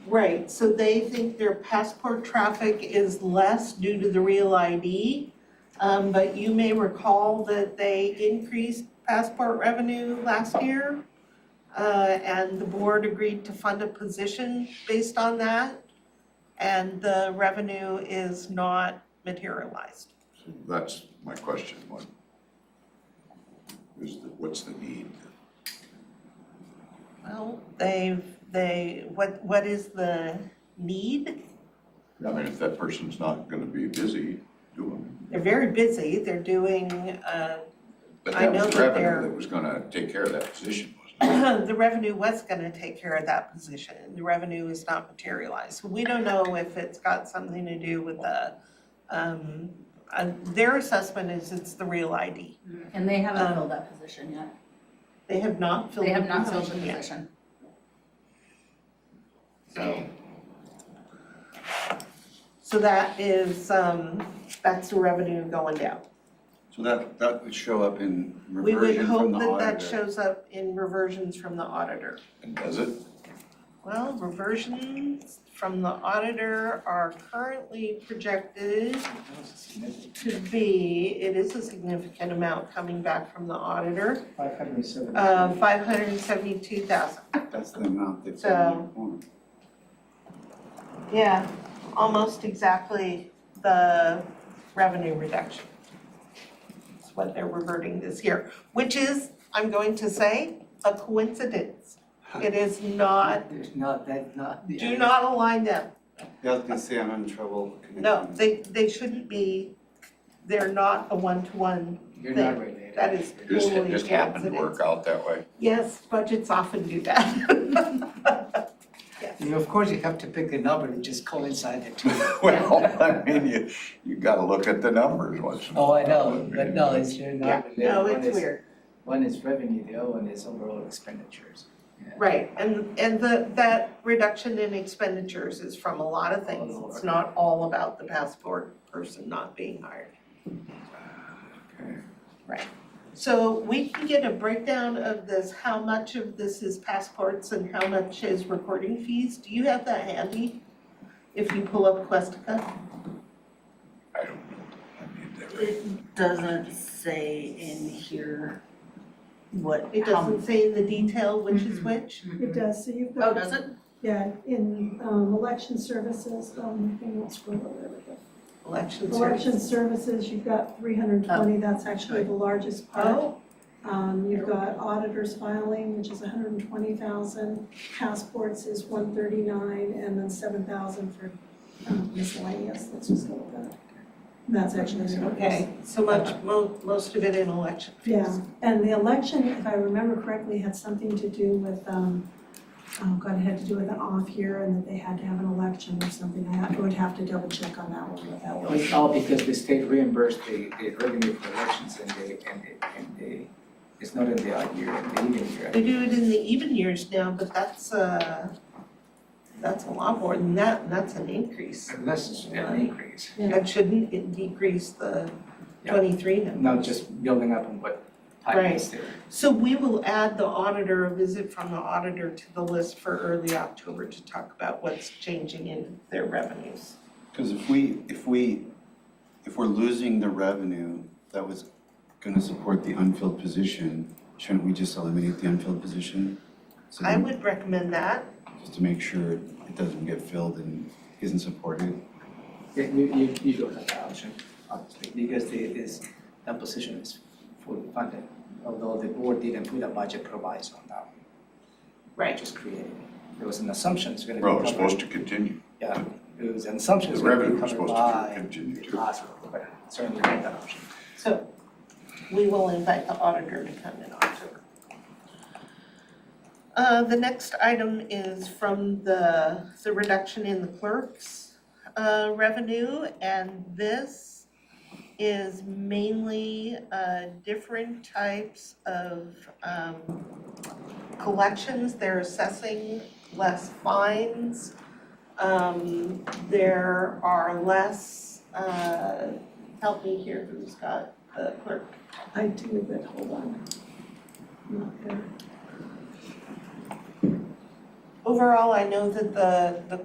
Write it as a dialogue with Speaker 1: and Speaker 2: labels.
Speaker 1: Right, so they think their passport traffic is less due to the real ID. Um, but you may recall that they increased passport revenue last year. Uh, and the board agreed to fund a position based on that. And the revenue is not materialized.
Speaker 2: That's my question, what is the, what's the need?
Speaker 1: Well, they've, they, what, what is the need?
Speaker 2: I mean, if that person's not gonna be busy doing,
Speaker 1: They're very busy, they're doing, uh,
Speaker 2: but
Speaker 1: I
Speaker 2: that
Speaker 1: know
Speaker 2: was
Speaker 1: that they're-
Speaker 2: revenue that was gonna take care of that position, wasn't it?
Speaker 1: the revenue was gonna take care of that position, the revenue is not materialized. We don't know if it's got something to do with the, um, uh, their assessment is it's the real ID.
Speaker 3: And they
Speaker 1: Um,
Speaker 3: haven't filled that position yet.
Speaker 1: They have not filled
Speaker 3: They
Speaker 1: the
Speaker 3: have not filled the
Speaker 1: position yet,
Speaker 3: position.
Speaker 1: so. So that is, um, that's the revenue going down.
Speaker 4: So that, that would show up in
Speaker 1: We would
Speaker 4: reversion
Speaker 1: hope
Speaker 4: from the
Speaker 1: that that
Speaker 4: auditor.
Speaker 1: shows up in reversions from the auditor.
Speaker 2: And does it?
Speaker 1: Well, reversions from the auditor are currently projected
Speaker 4: That was a significant-
Speaker 1: to be, it is a significant amount coming back from the auditor,
Speaker 5: Five hundred and seventy.
Speaker 1: uh, five hundred and seventy-two thousand.
Speaker 4: That's the amount that's
Speaker 1: So-
Speaker 4: in the form.
Speaker 1: Yeah, almost exactly the revenue reduction. That's what they're reverting this year, which is, I'm going to say, a coincidence. It is not,
Speaker 5: There's not, that, not.
Speaker 1: do not align them.
Speaker 4: Yeah, I was gonna say I'm in trouble connecting.
Speaker 1: No, they, they shouldn't be, they're not a one-to-one.
Speaker 5: You're not related.
Speaker 1: That is
Speaker 2: It Just, it
Speaker 1: Totally
Speaker 2: just happened to work out that way?
Speaker 1: Yes, budgets often do that.
Speaker 5: You, of course, you have to pick a number that just coincides the two.
Speaker 2: Well, I mean, you, you gotta look at the numbers once in a
Speaker 5: Oh, I
Speaker 2: while,
Speaker 5: know,
Speaker 2: mean,
Speaker 5: but no, it's, you're
Speaker 1: Yeah,
Speaker 5: not related.
Speaker 1: no,
Speaker 5: One
Speaker 1: it's
Speaker 5: is-
Speaker 1: weird.
Speaker 5: One is revenue, the other one is overall expenditures.
Speaker 1: Right, and, and the, that reduction in expenditures is from a lot of things. It's not all about the passport person not being hired.
Speaker 2: okay.
Speaker 1: So we can get a breakdown of this, how much of this is passports and how much is recording fees. Do you have that handy? If you pull up Questica?
Speaker 2: I don't know, I mean, that right.
Speaker 6: It doesn't say in here what,
Speaker 1: It
Speaker 6: how,
Speaker 1: doesn't say in the detail which is which.
Speaker 7: It does, so you've
Speaker 3: Oh,
Speaker 7: got,
Speaker 3: does it?
Speaker 7: yeah, in um election services, um, I think that's where we're at.
Speaker 1: Election service.
Speaker 7: Election services, you've got three hundred and twenty,
Speaker 3: Oh,
Speaker 7: that's actually the largest part.
Speaker 1: Oh,
Speaker 7: Um, you've got auditors filing, which is hundred and twenty thousand, passports is one thirty-nine, and then seven thousand for um, miscellaneous, let's just go with that. And That's actually the largest.
Speaker 1: okay, so much, mo- most of it in election fees.
Speaker 7: Yeah, and the election, if I remember correctly, had something to do with, um, oh God, it had to do with an off year and that they had to have an election or something. I ha- would have to double check on that one, but that
Speaker 5: It
Speaker 7: was.
Speaker 5: was all because the state reimbursed the, the revenue for elections and they, and they, and they, it's not in the odd year, in the even year.
Speaker 1: They do it in the even years now, but that's, uh, that's a lot more than that, and that's an increase.
Speaker 5: Unless it's an increase.
Speaker 1: That shouldn't it decrease the
Speaker 5: Yeah.
Speaker 1: twenty-three number.
Speaker 5: not just building up on what type is there.
Speaker 1: So we will add the auditor, a visit from the auditor to the list for early October to talk about what's changing in their revenues.
Speaker 4: Cause if we, if we, if we're losing the revenue that was gonna support the unfilled position, shouldn't we just eliminate the unfilled position? So
Speaker 1: I
Speaker 5: Mm-hmm.
Speaker 4: then-
Speaker 1: would recommend that.
Speaker 4: Just to make sure it doesn't get filled and isn't supported.
Speaker 5: Yeah, You, you, you don't have that option, obviously, because the, this, that position is fully funded, although the board didn't put a budget proviso on that.
Speaker 1: Right.
Speaker 5: Just created it. There was an assumption it's gonna be
Speaker 2: Well, it's
Speaker 5: covered-
Speaker 2: supposed to continue,
Speaker 5: Yeah, it was an assumption
Speaker 2: the
Speaker 5: it's gonna
Speaker 2: revenue
Speaker 5: be
Speaker 2: was
Speaker 5: covered
Speaker 2: supposed to
Speaker 5: by
Speaker 2: continue
Speaker 5: the
Speaker 2: to.
Speaker 5: hospital, but certainly not that option.
Speaker 1: So we will invite the auditor to come in October. Uh, the next item is from the, the reduction in the clerk's, uh, revenue, and this is mainly, uh, different types of, um, collections, they're assessing less fines. Um, there are less, uh, help me here, who's got the clerk?
Speaker 7: I do, but hold on. Not there.
Speaker 1: overall, I know that the, the